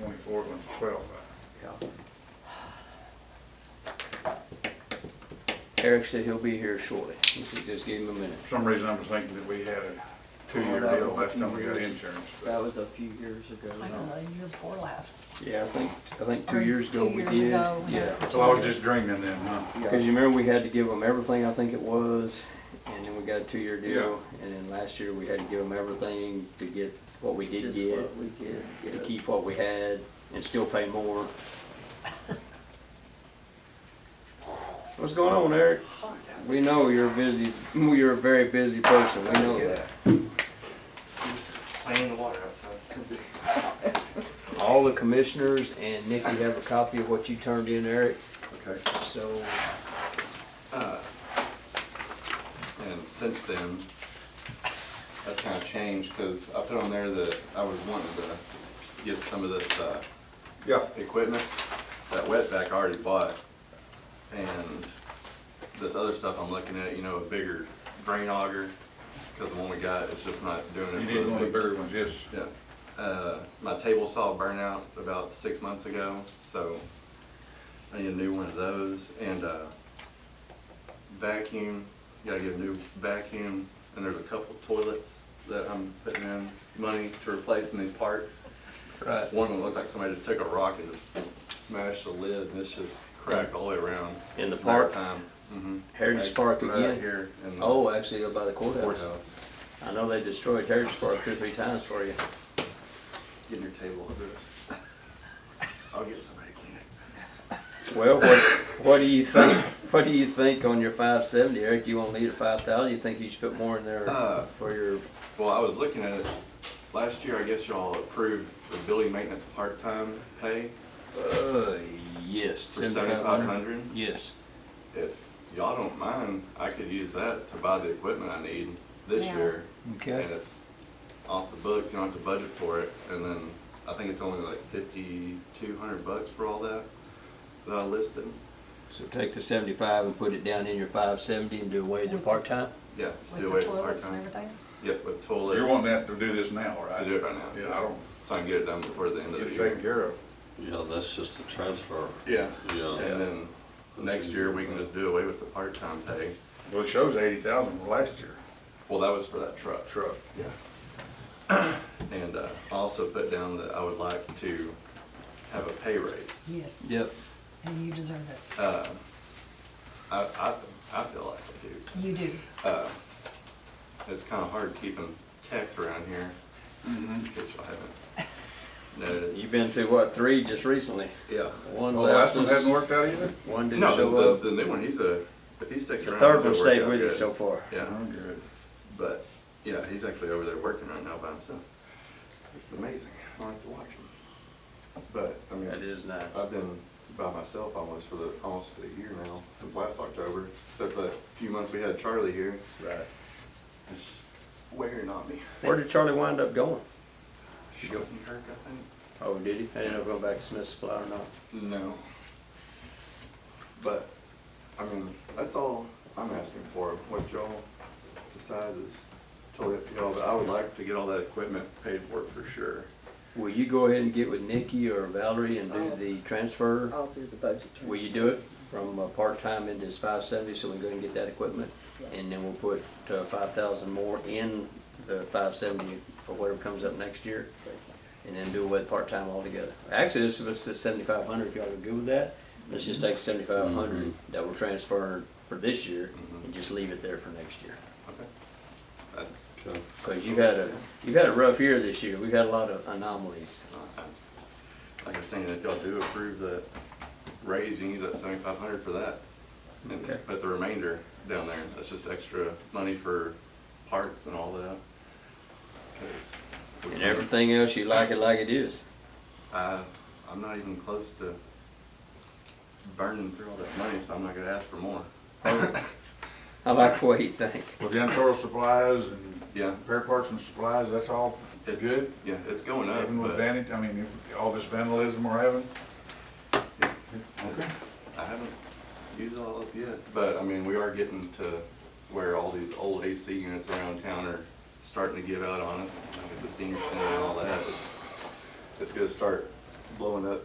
twenty-four, one's twelve five. Yeah. Eric said he'll be here shortly. We should just give him a minute. For some reason, I was thinking that we had a two-year Well, that deal was a last few time we got years. insurance. That but was a few years ago. I don't know, year before last. Yeah, I think, I think two Or years ago two we years did. ago, we Yeah. had- So I was just dreaming then, huh? Because you remember we had to give them everything, I think it was, and then we got a two-year deal. Yeah. And then last year, we had to give them everything to get what we did Just get, what we did to get. keep what we had, and still pay more. What's going on, Eric? We know you're a busy, you're a very busy person, we know that. Just playing in the water outside. It's so big. All the commissioners and Nikki have a copy of what you turned in, Eric, Okay. so Uh, And since then, that's kind of changed because I put on there that I was wanting to get some of this uh, Yeah, equipment, that wetback I already bought. And this other stuff I'm looking at, you know, a bigger drain auger, because the one we got is just not doing it. you for need those one of the big- bigger ones, yes. Yeah, uh, my table saw burn out about six months ago, so I need a new one of those, and, uh, vacuum, gotta get a new vacuum, and there's a couple toilets that I'm putting in money to replace in these parks. Right. One of them looks like somebody just took a rock and just smashed the lid, and it's just cracked all the way around. In the It's matter of park? Time. Mhm. Heritage Like, Park right again? Here in the Oh, actually, by the courthouse. courthouse, I know they destroyed Heritage Park two, or three times for you. getting your table addressed. I'll get somebody to clean it. Well, what, what do you think, what do you think on your five seventy, Eric? You won't need a five thousand, you think you should put more in there Uh, for your, Well, I was looking at it, last year, I guess y'all approved the building maintenance part-time pay uh, yes. for seventy-five hundred. Yes. If y'all don't mind, I could use that to buy the equipment I need this Yeah. year. Okay. And it's off the books, you don't have to budget for it, and then I think it's only like fifty-two hundred bucks for all that, that I listed. So take the seventy-five and put it down in your five seventy and do away with the part-time? Yeah, just With do the away with toilets and part-time. everything? Yep, with toilets. You're wanting that to do this now, To right? do it right now. Yeah, I don't, So I can get it done before the end of get the it year. taken care of. Yeah, that's just a transfer. Yeah. Yeah. And then next year, we can just do away with the part-time pay. Well, it shows eighty thousand from last year, Well, that was for that truck. truck. Yeah. And uh, I also put down that I would like to have a pay raise. Yes. Yep. And you deserve it. Uh, I, I, I feel like I do. You do. Uh, It's kind of hard keeping techs around here, which I haven't noticed. You've been to what, three just recently? Yeah. One Well, Oh, the last last one hasn't worked out either? one didn't show No, up. the, the new one, he's a, if he sticks The around. third he'll one work stayed out with you good. so far. Yeah. Oh, good. But yeah, he's actually over there working right now by himself. It's amazing. I like to watch him. But I mean, That is nice. I've been by myself almost for the almost for the year now since last October, except for that few months we had Charlie here. Right. It's wearing on me. Where did Charlie wind up going? Shortenkirk, I Oh, did he? I didn't know if he went back to Smith Supply or not. think. No. But I mean, that's all I'm asking for. What y'all decide is totally up to y'all. But I would like to get all that equipment paid for for sure. Will you go ahead and get with Nikki or Valerie and do I'll- the transfer? I'll do the budget transfer. Will you do it from uh, part-time into this five seventy, so we can go and get that equipment? Yeah. And then we'll put uh, five thousand more in the five seventy for whatever comes up next year, and then do away with part-time altogether. Actually, this was seventy-five hundred, if y'all are good with that. Let's just take seventy-five hundred that we're transferring for this year Mhm. and just leave it there for next year. Okay. That's. Okay. Cause you've had a, you've had a rough year this year. We've had a lot of anomalies. Like I was saying, if y'all do approve the raise, you can use that seventy-five hundred for that. And Okay. put the remainder down there, that's just extra money for parts and all that. 'Cause we And can't- everything else, you like it like it is. I, I'm not even close to burning through all that money, so I'm not gonna ask for more. I like the way you think. Well, janitorial supplies and Yeah. repair parts and supplies, that's all It- good? Yeah, it's going up, Even with but vanity, I mean, if- all this vandalism we're having? it's- I haven't used all of it yet, but I mean, we are getting to where all these old AC units around town are starting to give out on us, like at the senior center and all that. It's- It's gonna start blowing up